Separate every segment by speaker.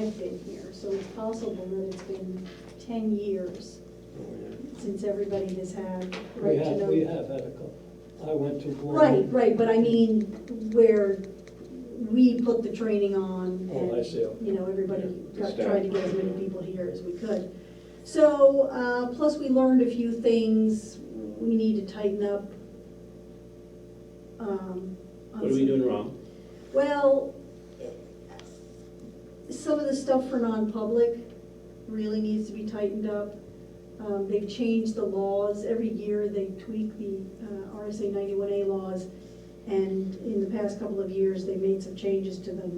Speaker 1: I've been here, so it's possible that it's been ten years since everybody has had
Speaker 2: We
Speaker 1: right to
Speaker 2: have,
Speaker 1: know.
Speaker 2: we have had a couple. I went to one.
Speaker 1: Right, right, but I mean, where we put the training on.
Speaker 2: Oh, I
Speaker 1: and,
Speaker 2: see.
Speaker 1: You know, everybody
Speaker 3: Yeah,
Speaker 1: got,
Speaker 3: staff.
Speaker 1: tried to get as many people here as we could. So, uh, plus we learned a few things, we need to tighten up. um, on
Speaker 4: What are we
Speaker 1: some-
Speaker 4: doing wrong?
Speaker 1: Well, some of the stuff for non-public really needs to be tightened up. Um, they've changed the laws, every year they tweak the uh, RSA ninety-one A laws. And in the past couple of years, they made some changes to the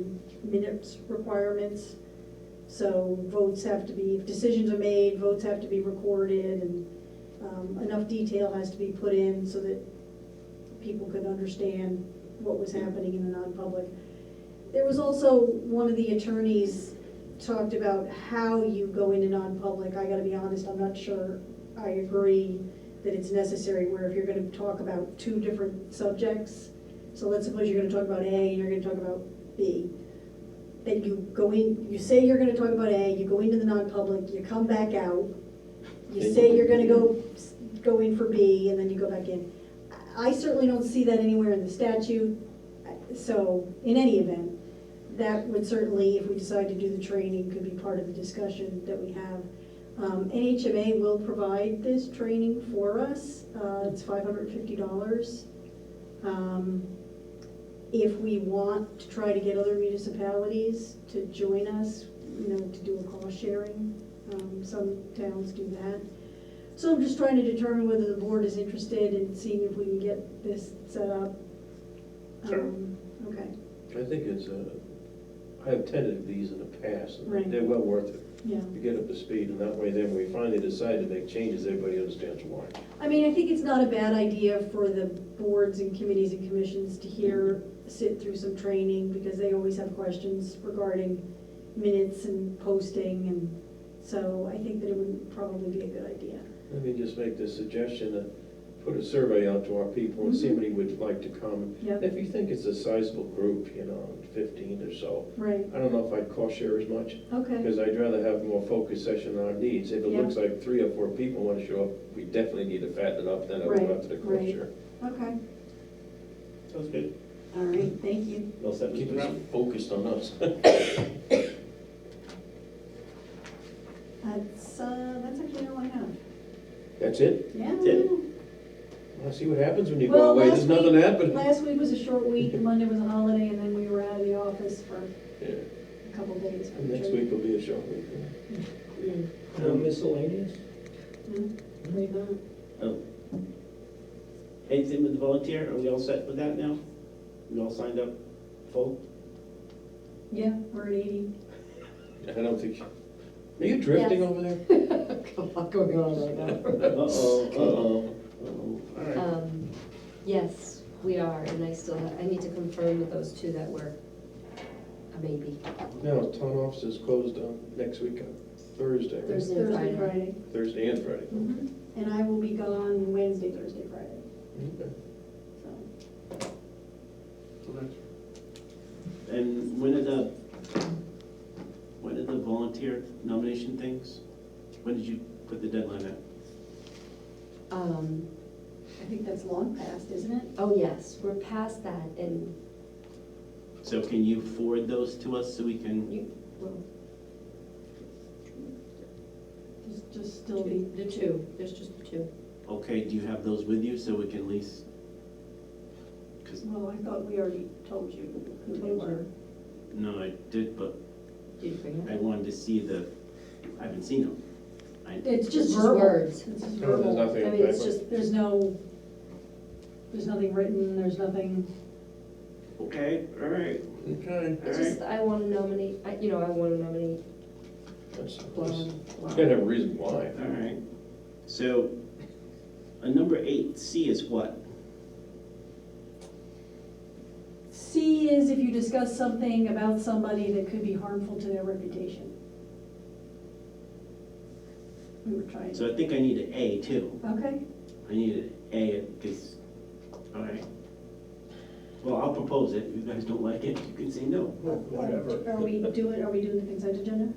Speaker 1: minutes requirements. So votes have to be, if decisions are made, votes have to be recorded and um, enough detail has to be put in so that people could understand what was happening in the non-public. There was also, one of the attorneys talked about how you go into non-public. I gotta be honest, I'm not sure I agree that it's necessary where if you're gonna talk about two different subjects, so let's suppose you're gonna talk about A and you're gonna talk about B. Then you go in, you say you're gonna talk about A, you go into the non-public, you come back out, you say you're gonna go, go in for B, and then you go back in. I certainly don't see that anywhere in the statute, so, in any event, that would certainly, if we decide to do the training, could be part of the discussion that we have. Um, NHMA will provide this training for us, uh, it's five hundred and fifty dollars. Um, If we want to try to get other municipalities to join us, you know, to do a cost sharing, um, some towns do that. So I'm just trying to determine whether the board is interested in seeing if we can get this set up.
Speaker 3: Sure.
Speaker 1: Um, Okay,
Speaker 5: I think it's a, I have attended these in the past,
Speaker 1: Right.
Speaker 5: and they're well worth it.
Speaker 1: yeah.
Speaker 5: You get up to speed, and that way then when we finally decide to make changes, everybody understands why.
Speaker 1: I mean, I think it's not a bad idea for the boards and committees and commissions to hear, sit through some training, because they always have questions regarding minutes and posting, and so I think that it would probably be a good idea.
Speaker 5: Let me just make this suggestion, uh, put a survey out to our people and see
Speaker 1: Mm-hmm.
Speaker 5: how many would like to come.
Speaker 1: Yep.
Speaker 5: If you think it's a sizable group, you know, fifteen or so,
Speaker 1: Right,
Speaker 5: I don't know if I'd cost share as much,
Speaker 1: okay,
Speaker 5: because I'd rather have more focused session on our needs. If it
Speaker 1: Yeah.
Speaker 5: looks like three or four people wanna show up, we definitely need to fatten it up, then I'll
Speaker 1: Right,
Speaker 5: go out to the cost
Speaker 1: right.
Speaker 5: share.
Speaker 1: okay,
Speaker 4: Sounds good.
Speaker 1: all right, thank you.
Speaker 4: Well said,
Speaker 5: Keep
Speaker 4: Mr.
Speaker 5: us
Speaker 4: Brown.
Speaker 5: focused on us.
Speaker 1: That's, uh, that's actually all I have.
Speaker 5: That's it?
Speaker 1: Yeah.
Speaker 4: it.
Speaker 5: Well, see what happens when you
Speaker 1: Well,
Speaker 5: go away,
Speaker 1: last
Speaker 5: there's nothing
Speaker 1: week-
Speaker 5: happening.
Speaker 1: Last week was a short week, and Monday was a holiday, and then we were out of the office for
Speaker 5: Yeah,
Speaker 1: a couple days.
Speaker 5: and Next week will be a short week.
Speaker 1: Mm.
Speaker 2: Uh, Miscellaneous?
Speaker 1: Mm. Worry about it.
Speaker 4: Oh. Anything with the volunteer, are we all set with that now? We all signed up full?
Speaker 1: Yeah, we're at eighty.
Speaker 5: I don't think, are you drifting
Speaker 1: Yes.
Speaker 5: over there?
Speaker 6: A lot going on right now.
Speaker 4: Uh-oh, uh-oh, uh-oh, all right.
Speaker 6: Um, Yes, we are, and I still, have- I need to confirm with those two that were a maybe.
Speaker 5: No, town office is closed on next week, on Thursday, right?
Speaker 6: Thursday and
Speaker 1: Thursday,
Speaker 6: Friday.
Speaker 1: Friday.
Speaker 5: Thursday and Friday.
Speaker 1: Mhm. And I will be gone Wednesday, Thursday, Friday,
Speaker 5: Okay.
Speaker 1: so.
Speaker 4: And when did the, when did the volunteer nomination things, when did you put the deadline at?
Speaker 6: Um,
Speaker 1: I think that's long past, isn't it?
Speaker 6: Oh, yes, we're past that, and
Speaker 4: So can you forward those to us so we can,
Speaker 6: you, well,
Speaker 1: Just, just still be,
Speaker 6: the two, there's just the two.
Speaker 4: okay, do you have those with you so we can at least? Because,
Speaker 1: well, I thought we already told you who they were.
Speaker 4: no, I did, but
Speaker 6: Did you bring it?
Speaker 4: I wanted to see the, I haven't seen them. I,
Speaker 1: It's
Speaker 6: just
Speaker 1: just verbal.
Speaker 6: words.
Speaker 1: It's just
Speaker 5: No, there's
Speaker 1: verbal.
Speaker 6: I
Speaker 5: nothing in
Speaker 6: mean,
Speaker 5: paper.
Speaker 6: it's just,
Speaker 1: There's no, there's nothing written, there's nothing,
Speaker 4: okay, all right,
Speaker 5: Okay.
Speaker 4: all
Speaker 6: it's
Speaker 4: right.
Speaker 6: just, I want to nominate, I- you know, I want to nominate
Speaker 5: That's- that's-
Speaker 6: Lauren.
Speaker 5: Can't have a reason why.
Speaker 4: All right, so, a number eight C is what?
Speaker 1: C is if you discuss something about somebody that could be harmful to their reputation. We were trying,
Speaker 4: So I think I need an A too.
Speaker 1: okay,
Speaker 4: I need an A because, all right. Well, I'll propose it. If you guys don't like it, you can say no.
Speaker 1: Are we doing, are we doing the consent agenda?